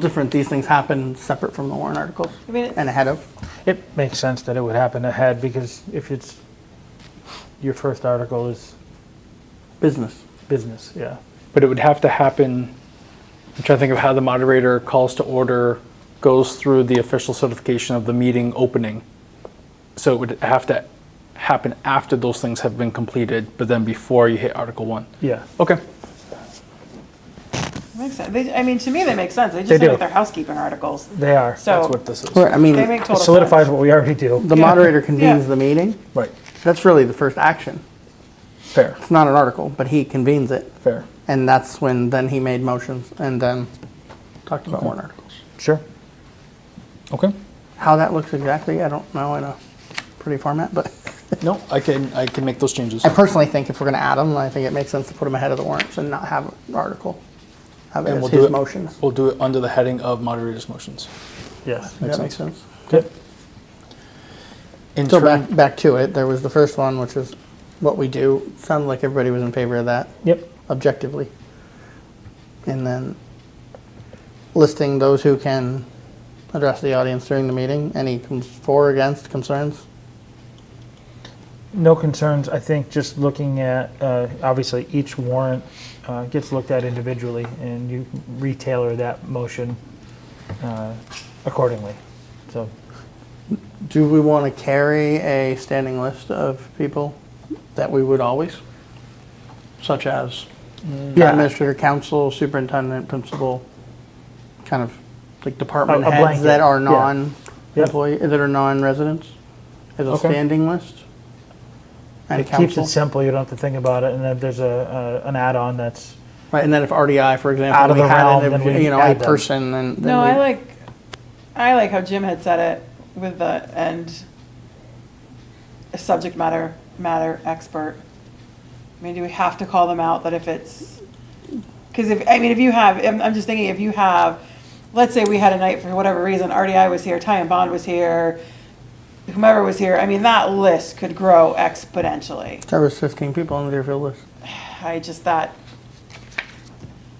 different, these things happen separate from the warrant articles I mean, and ahead of. It makes sense that it would happen ahead because if it's, your first article is Business. business, yeah. But it would have to happen, I'm trying to think of how the moderator calls to order, goes through the official certification of the meeting opening. So it would have to happen after those things have been completed, but then before you hit Article 1. Yeah. Okay, makes sense. They, I mean, to me, they make sense. They They just look do. like they're housekeeping articles. They are. that's So what this is. Right, I mean, they make It total solidifies sense. what we already do. the moderator convenes Yeah. the meeting. Right, That's really the first action. fair, It's not an article, but he convenes it. fair. And that's when then he made motions and then talked about warrant articles. Sure. Okay, How that looks exactly, I don't know in a pretty format, but no, I can, I can make those changes. I personally think if we're going to add them, I think it makes sense to put them ahead of the warrants and not have an article. Have it And as we'll do his it- motions. We'll do it under the heading of moderator's motions. Yes. Does Makes that make sense. sense? Yep. In So turn- back, back to it, there was the first one, which was what we do. Sounded like everybody was in favor of that Yep. objectively. And then listing those who can address the audience during the meeting, any cons- for, against, concerns? No concerns. I think just looking at, uh, obviously, each warrant uh, gets looked at individually and you retailer that motion uh, accordingly. So Do we want to carry a standing list of people that we would always? Such as town Yeah. administrator, council, superintendent, principal, kind of like department A- a heads that blanket, are yeah. non-employee, that are non-residents? As a Okay. standing list? And it keeps it council? simple. You don't have to think about it. And then there's a, a- an add-on that's, Right, and then if RDI, for Out example, of we the had realm, an, then ev- we you know, a add them. person, then. then No, I we- like, I like how Jim had said it with the end, a subject matter, matter expert. I mean, do we have to call them out that if it's, because if, I mean, if you have, I'm, I'm just thinking, if you have, let's say we had a night for whatever reason, RDI was here, Ty and Bond was here, whomever was here, I mean, that list could grow exponentially. There was fifteen people on the Deerfield list, I just, that,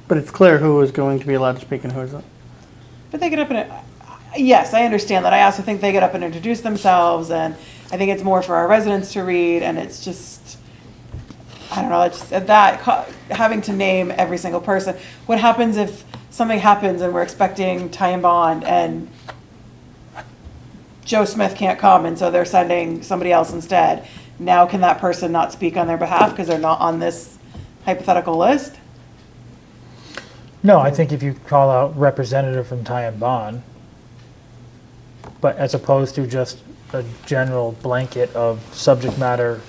but it's clear who is going to be allowed to speak and who isn't. But they get up and, yes, I understand that. I also think they get up and introduce themselves, and I think it's more for our residents to read, and it's just, I don't know, it's just that, co- having to name every single person. What happens if something happens and we're expecting Ty and Bond and Joe Smith can't come, and so they're sending somebody else instead? Now can that person not speak on their behalf because they're not on this hypothetical list? no, I think if you call out representative from Ty and Bond, but as opposed to just a general blanket of subject matter,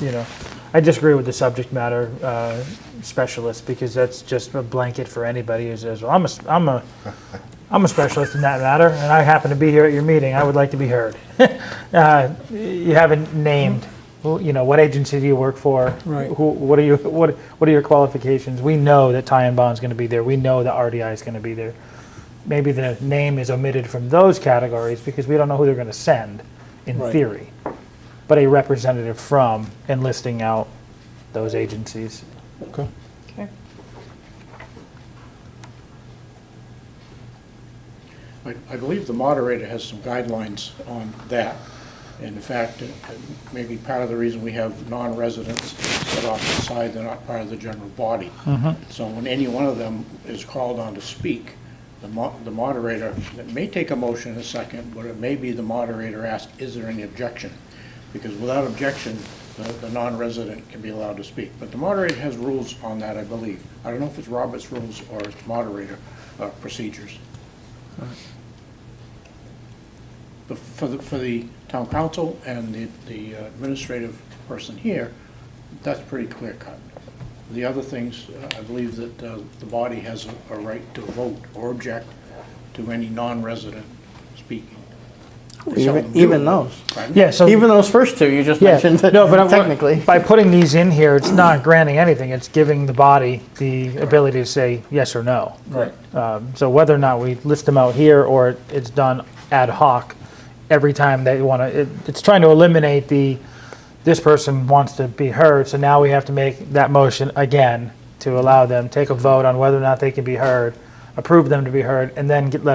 you know, I disagree with the subject matter uh, specialist because that's just a blanket for anybody who says, well, I'm a, s- I'm a, I'm a specialist in that matter, and I happen to be here at your meeting. I would like to be heard. uh, you haven't named, well, you know, what agency do you work for? Right. Who, what are you? What What are your qualifications? We know that Ty and Bond's going to be there. We know that RDI is going to be there maybe the name is omitted from those categories because we don't know who they're going to send in Right. theory. But a representative from and listing out those agencies. Okay. Okay. I I believe the moderator has some guidelines on that. And in fact, it- it may be part of the reason we have non-residents set off to the side, they're not part of the general body. So when any one of them is called on to speak, the mo- the moderator, it may take a motion in a second, but it may be the moderator asked, is there any objection? Because without objection, the- the non-resident can be allowed to speak. But the moderator has rules on that, I believe. I don't know if it's Robert's rules or it's moderator uh, procedures. But for the, for the town council and the, the uh, administrative person here, that's pretty clear cut. The other things, uh, I believe that uh, the body has a- a right to vote or object to any non-resident speaking. Even, even those. Pardon? Yeah. So Even those first two you just yeah, mentioned, no, but I'm- technically. by putting these in here, it's not granting anything. It's giving the body the ability to say yes or no. Right. Um, so whether or not we list them out here or it's done ad hoc every time they want to, it, it's trying to eliminate the this person wants to be heard, so now we have to make that motion again to allow them take a vote on whether or not they can be heard approve them to be heard, and then get, let